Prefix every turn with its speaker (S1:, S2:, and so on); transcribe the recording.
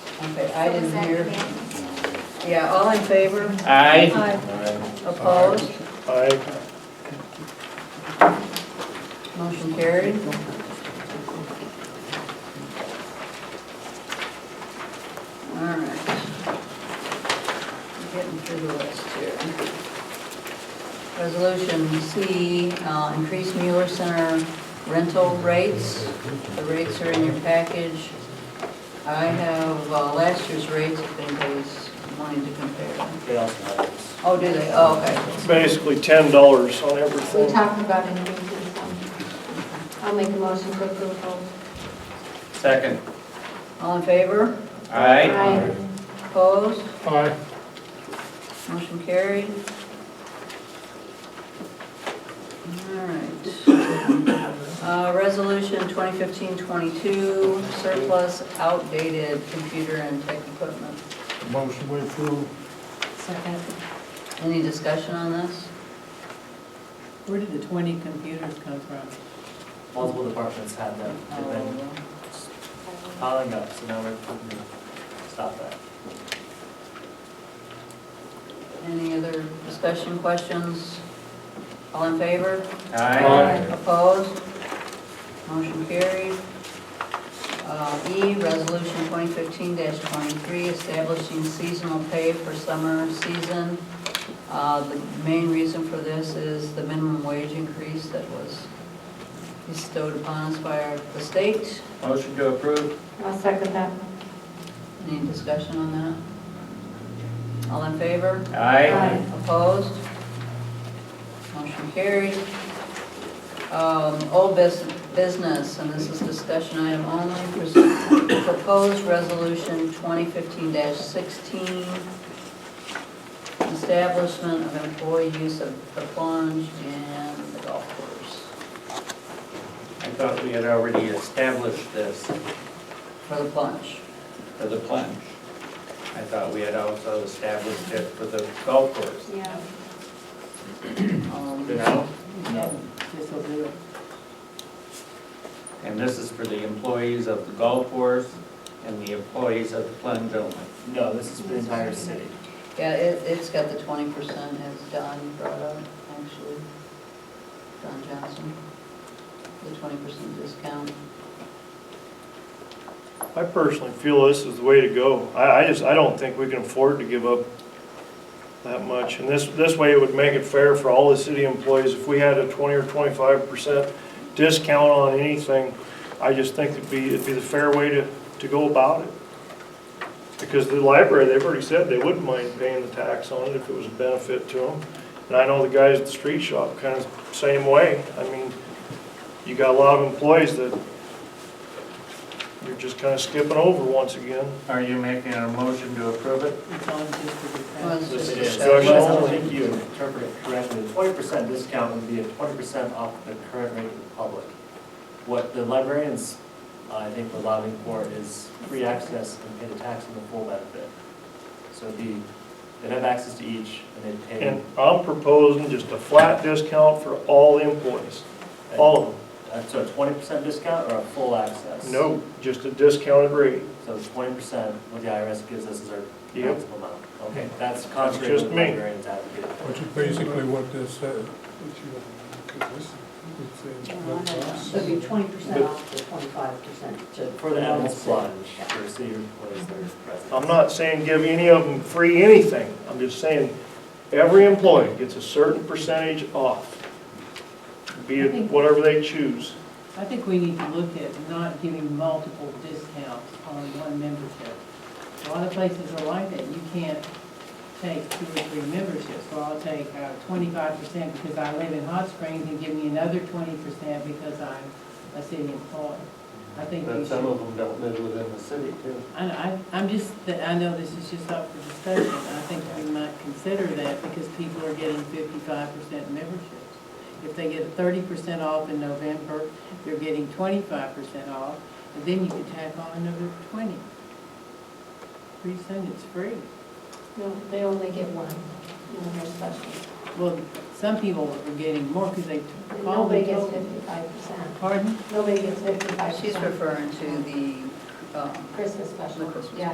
S1: Okay, I
S2: Is
S1: didn't
S2: that
S1: hear.
S2: okay?
S1: Yeah, all in favor?
S3: Aye.
S1: Aye. Opposed?
S4: Aye.
S1: Motion carried. All right. Getting through the list here. Resolution C, uh, increase Mueller Center rental rates. The rates are in your package. I have, uh, last year's rates if anybody's wanting to compare them.
S5: They also have this.
S1: Oh, do they? Oh, okay.
S4: It's basically ten dollars on
S2: We
S4: everything.
S2: talked about it in the meeting, so I'll make a motion to approve both.
S3: Second.
S1: All in favor?
S3: Aye.
S1: Opposed?
S4: Aye.
S1: Motion carried. All right. Uh, Resolution 2015-22, surplus outdated computer and tech equipment.
S6: Motion we approve.
S7: Second,
S1: Any discussion on this?
S7: where did the 20 computers come from?
S5: Multiple departments had them,
S1: Oh,
S5: they've been piling up, so now we're putting them, stop that.
S1: Any other discussion, questions? All in favor?
S3: Aye.
S1: Opposed? Motion carried. Uh, E, Resolution 2015-23, establishing seasonal pay for summer season. Uh, The main reason for this is the minimum wage increase that was bestowed upon us by our- the state.
S3: Motion to approve.
S2: I'll second that.
S1: Any discussion on that? All in favor?
S3: Aye.
S1: Opposed? Motion carried. Um, Old bus- business, and this is discussion item only, pres- proposed resolution 2015-16, establishment of employee use of the plunge and the golf course
S3: I thought we had already established this
S1: for the plunge.
S3: for the plunge. I thought we had also established it for the golf course.
S2: Yeah.
S1: Um,
S3: No?
S7: No. This will do it.
S3: And this is for the employees of the golf course and the employees of the plunge only.
S5: No, this is for the entire city.
S1: Yeah, it, it's got the 20% as Don brought up, actually, Don Johnson, the 20% discount.
S4: I personally feel this is the way to go. I, I just, I don't think we can afford to give up that much. And this, this way it would make it fair for all the city employees. If we had a twenty or twenty-five percent discount on anything, I just think it'd be, it'd be the fair way to, to go about it. Because the library, they've already said they wouldn't mind paying the tax on it if it was a benefit to them. And I know the guys at the street shop kind of same way. I mean, you got a lot of employees that you're just kind of skipping over once again.
S3: Are you making a motion to approve it?
S7: It's all just for the
S1: Well, it's
S7: tax.
S1: just
S5: Yes,
S4: is.
S5: it Well,
S1: discussion.
S5: I don't think you interpret it correctly. The twenty percent discount would be a twenty percent off the current rate to the public. What the librarians, uh, I think, were lobbying for is free access and pay the tax on the full benefit. So it'd be, they'd have access to each, and they'd pay.
S4: And I'm proposing just a flat discount for all the employees, all of
S5: Uh, So a twenty percent discount or a full access?
S4: them. No, just a discounted rate.
S5: So it's twenty percent, what the IRS gives us is our
S4: Yep.
S5: maximum amount. Okay, that's contrary to
S4: Just
S5: what
S4: me.
S5: librarians advocate.
S6: Which is basically what this says.
S1: Oh,
S7: It'll be 20% off the 25% to.
S5: For the Adams Plunge, for city employees that are present.
S4: I'm not saying give any of them free anything. I'm just saying every employee gets a certain percentage off, be it whatever they choose.
S7: I think we need to look at not giving multiple discounts on one membership. A lot of places are like that, you can't take two or three memberships, well, I'll take uh, twenty-five percent because I live in Hot Springs and give me another twenty percent because I'm a city employee. I think we
S3: But some
S7: should,
S3: of them don't live within the city too.
S7: I, I, I'm just, that I know this is just up for discussion, I think we might consider that because people are getting fifty-five percent memberships. If they get thirty percent off in November, they're getting twenty-five percent off, and then you can tack on another twenty. Pretty soon it's free.
S2: No, they only get one, and they're special.
S7: Well, some people are getting more because they
S2: And
S7: call
S2: Nobody
S7: the
S2: gets
S7: token.
S2: fifty-five percent.
S7: Pardon?
S2: Nobody gets fifty-five percent.
S1: She's referring to the, um,
S2: Christmas special.
S1: The Christmas.
S2: Yeah.